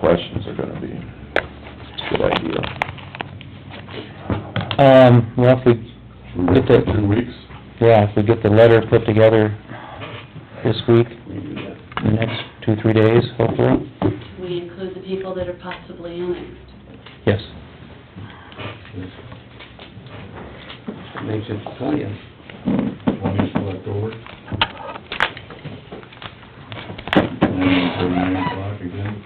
questions are gonna be. Good idea. Um, well, if we, We got Get that. Two weeks? yeah, if we get the letter put together this week, the next two, three days, hopefully, we include the people that are possibly annexed. yes. Makes it twentieth. One is still October. And then for nine o'clock again.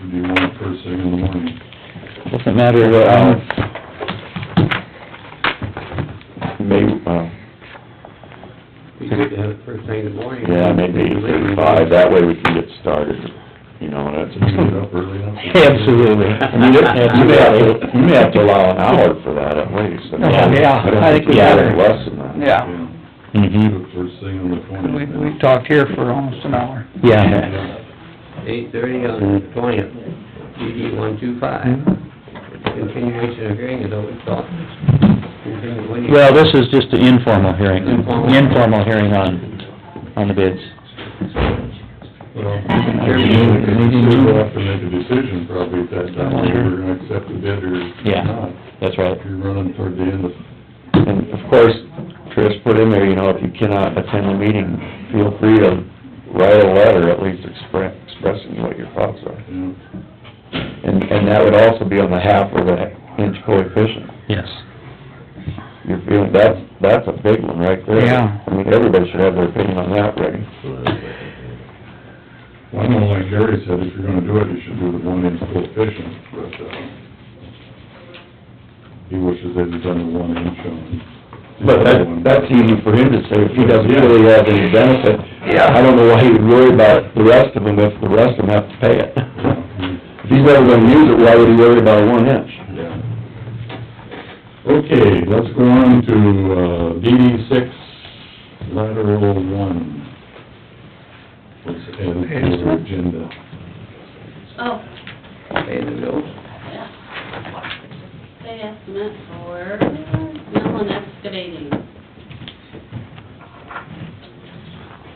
Do you want it first thing in the morning? Doesn't matter, um, um, May, uh, Be good to have it first thing in the morning. yeah, maybe eight thirty-five, that way we can get started, you know, that's. You get up early enough? absolutely. I mean, it- You may have to, you may have to allow an hour for that at least. I mean, Yeah, I think we yeah, better. Less than that. Yeah, Yeah, do Mm-hmm, it first thing on the we, twentieth. we talked here for almost an hour. yeah. Eight thirty on the twentieth, DD one two five. Continuation of hearing is open, so. continue waiting. Well, this is just an informal hearing, Informal. informal hearing on, on the bids. Sure. Well, we can consider that to make a decision probably at that time, whether we're gonna accept the bid or Yeah. not. That's right. If you're running toward the end of And of course, Trish put in there, you know, if you cannot attend the meeting, feel free to write a letter, at least expre- expressing what your thoughts are. Yeah. And, and that would also be on the half or the inch coefficient. Yes. You're feeling, that's, that's a big one right there. Yeah. I mean, everybody should have their opinion on that, Rick. Well, I know, like Gary said, if you're gonna do it, you should do the one inch coefficient, but, uh, he wishes they'd have done the one inch on. the But other that, one. that's easy for him to say, if he doesn't really have any benefit. Yeah. I don't know why he would worry about the rest of them if the rest of them have to pay it. If he's never gonna use it, why would he worry about one inch? Yeah. Okay, let's go on to, uh, DD six, lateral one. Let's add it to our agenda. Oh, Pay the bills. yeah. They estimate for mill and excavating.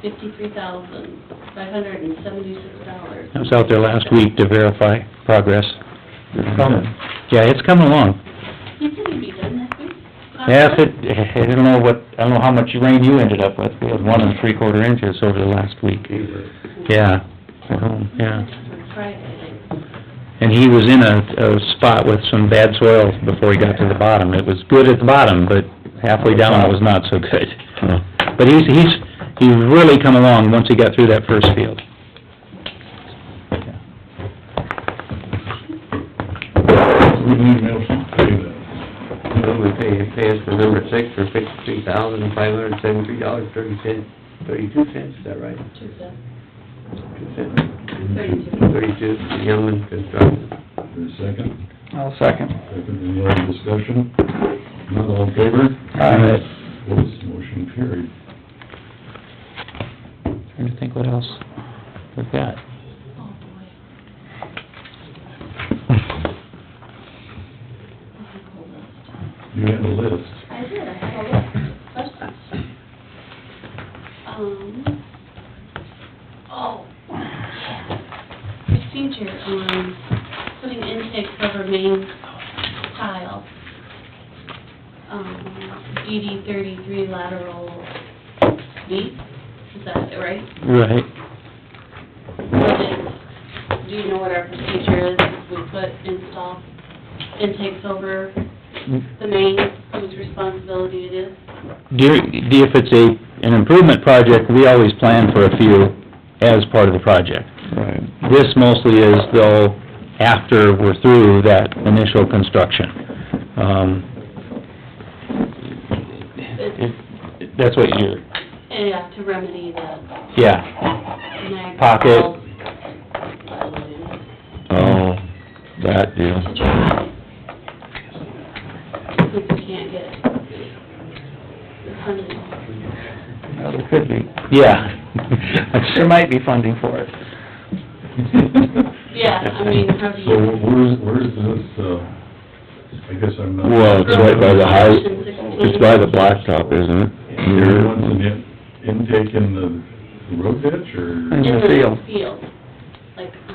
Fifty-three thousand, five hundred and seventy-six dollars. I was out there last week to verify progress. Yeah, it's coming along. You think it'd be done this week? Yeah, if it, I don't know what, I don't know how much rain you ended up with, we had one and three quarter inches over the last week. Yeah, um, yeah. Friday. And he was in a, a spot with some bad soil before he got to the bottom. It was good at the bottom, but halfway down it was not so good. But he's, he's, he's really come along once he got through that first field. We need to have some pay that. Move we pay advance for number six for fifty-three thousand, five hundred and seventy-three dollars, thirty cents, thirty-two cents, is that right? Two thousand, Two cents, thirty-two. thirty-two, Youngman Construction. For a second. I'll second. Second, any other discussion? Not all in favor? Aye. Opposed, motion carried. Trying to think what else we've got. Oh, boy. This is a whole list. You had a list. I did, I have a list of questions. Um, oh, procedure on putting intake cover main tile, um, DD thirty-three lateral B, is that it, right? Right. What is, do you know what our procedure is, if we put install intakes over the main, whose responsibility it is? During, if it's a, an improvement project, we always plan for a few as part of the project. Right. This mostly is though after we're through that initial construction. Um, It's it- that's what you're, Yeah, uh, to remedy the yeah. Niagara Pocket. Falls. To Oh, that deal. try. If we can't get it. The funding. Well, there could be. Yeah. There might be funding for it. Yeah, I mean, how do So you... where's, where's this, uh, I guess I'm not... Well, it's right by the high, Section 16. it's by the blacktop, isn't it? You're Near- wanting in- intake in the road ditch, or In the field. field, like